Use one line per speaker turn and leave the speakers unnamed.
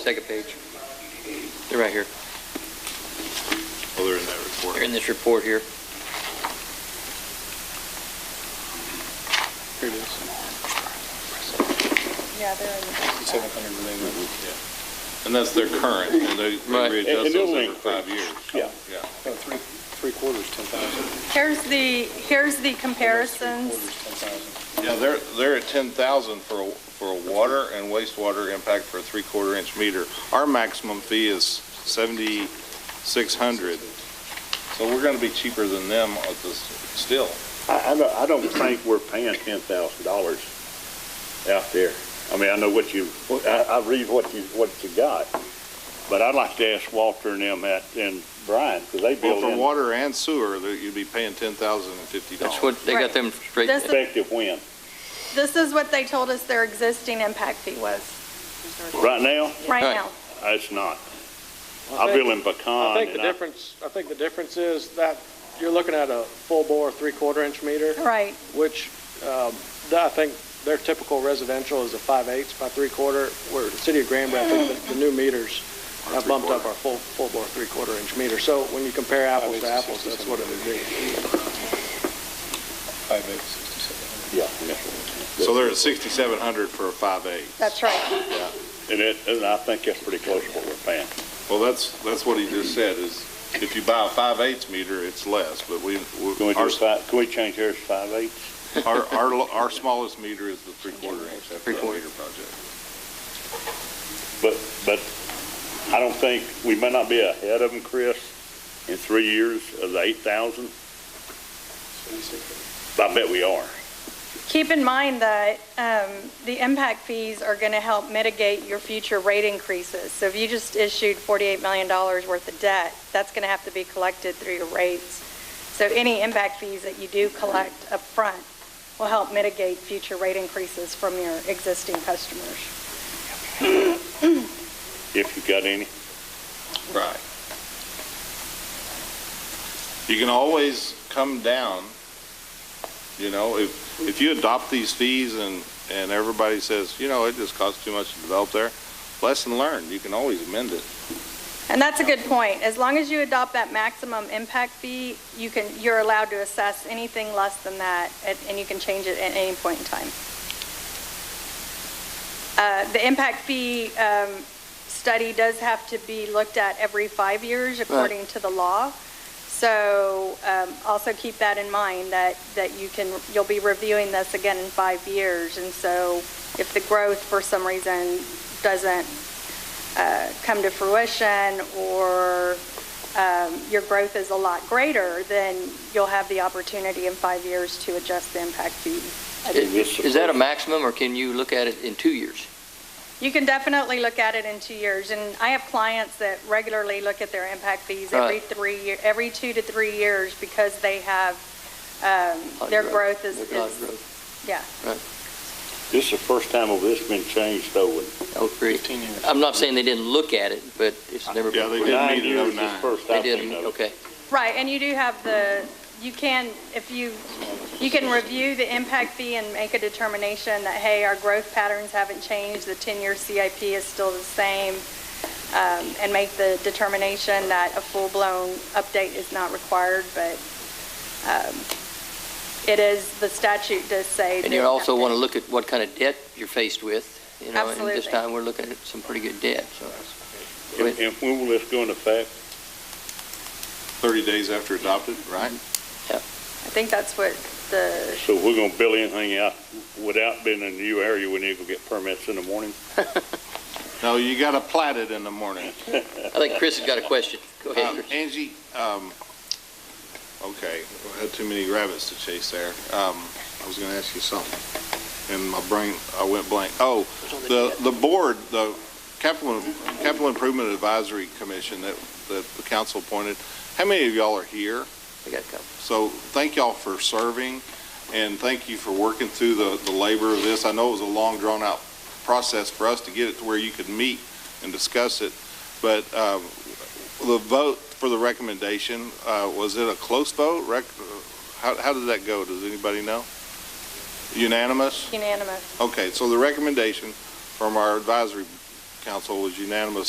second page. They're right here.
Oh, they're in that report.
They're in this report here.
Here it is.
Yeah, they're in the.
Seven hundred million.
And that's their current, and they
Right.
they readjust
And it'll
those every
increase.
five years.
Yeah.
Yeah.
No, Oh, three, three quarters, ten thousand.
Here's the, here's the comparisons.
Yeah, they're, they're at 10,000 for, a- for a water and wastewater impact for a three-quarter inch meter. Our maximum fee is 7,600. So we're going to be cheaper than them at this, still.
I, I don't, I don't think we're paying ten thousand dollars out there. I mean, I know what you, I, I read what you, what you got, but I'd like to ask Walter and them at, and Brian, because they
Well,
build
for
in
water and sewer, that you'd be paying $10,050.
That's what, they got
Right.
them straight.
This is,
effective when.
this is what they told us their existing impact fee was,
Right now,
right
Right.
now.
it's not. I build in pecan.
I think the
and I-
difference, I think the difference is that you're looking at a full bore, three-quarter inch meter,
Right,
which, um, that I think their typical residential is a five-eighths by three-quarter, where the city of Granbury, I think the, the new meters have bumped up our full, full bore, three-quarter inch meter. So when you compare apples to apples, that's what it would be.
Five eight, sixty-seven.
Yeah. yeah.
So they're at 6,700 for a five-eight.
that's right.
And it, and I think that's pretty close to what we're paying.
Well, that's, that's what he just said, is if you buy a five-eighths meter, it's less, but we, we-
Can we do
our,
five, can we change ours to five eight?
our, our lo- our smallest meter is the three-quarter inch, that's the
Three-quarter.
meter project.
But, but I don't think, we may not be ahead of them, Chris, in three years of the eight thousand. I bet we are.
Keep in mind that um, the impact fees are going to help mitigate your future rate increases. So if you just issued $48 million worth of debt, that's going to have to be collected through your rates. So any impact fees that you do collect upfront will help mitigate future rate increases from your existing customers.
If you got any,
Right. You can always come down, you know, if, if you adopt these fees and, and everybody says, you know, it just costs too much to develop there, lesson learned, you can always amend it.
And that's a good point. As long as you adopt that maximum impact fee, you can, you're allowed to assess anything less than that, at- and you can change it at any point in time. Uh, The impact fee um, study does have to be looked at every five years according to the law. So um, also keep that in mind, that, that you can, you'll be reviewing this again in five years. And so if the growth for some reason doesn't uh, come to fruition or um, your growth is a lot greater, then you'll have the opportunity in five years to adjust the impact fee.
Is is that a maximum, or can you look at it in two years?
You can definitely look at it in two years, and I have clients that regularly look at their impact fees every
Right.
three, year- every two to three years because they have, um, their growth is,
Their lot
is-
growth.
yeah.
this is the first time of this been changed though. in
I would agree.
Fifteen years.
Oh, I'm not saying they didn't look at it, but it's never
Yeah, they
been.
did
nine
meet in
years, this
09.
First I've
did,
seen of it.
okay.
Right, and you do have the, you can, if you, you can review the impact fee and make a determination that, hey, our growth patterns haven't changed, the 10-year CIP is still the same, um, and make the determination that a full-blown update is not required, but um, it is, the statute does say.
And
that-
you also want to look at what kind of debt you're faced with, you know, and this
Absolutely.
time, we're looking at some pretty good debt, so.
And and when will this go into effect?
Thirty days after adopted, right?
I think that's what the,
So if we're gonna build anything out without being in a new area, we need to go get permits in the morning?
No, you gotta plat it in the morning.
I think Chris has got a question. Go ahead,
Um,
Chris.
Angie, um, okay, I had too many rabbits to chase there. Um, I was gonna ask you something, and my brain, I went blank. Oh, the, the board, the capital, capital improvement advisory commission that, that the council appointed, how many of y'all are here?
I got a couple.
So thank y'all for serving, and thank you for working through the, the labor of this. I know it was a long, drawn-out process for us to get it to where you could meet and discuss it, but um, the vote for the recommendation, uh, was it a close vote? Rec- uh, How, how did that go? Does anybody know? Unanimous?
unanimous.
Okay, so the recommendation from our advisory council was unanimous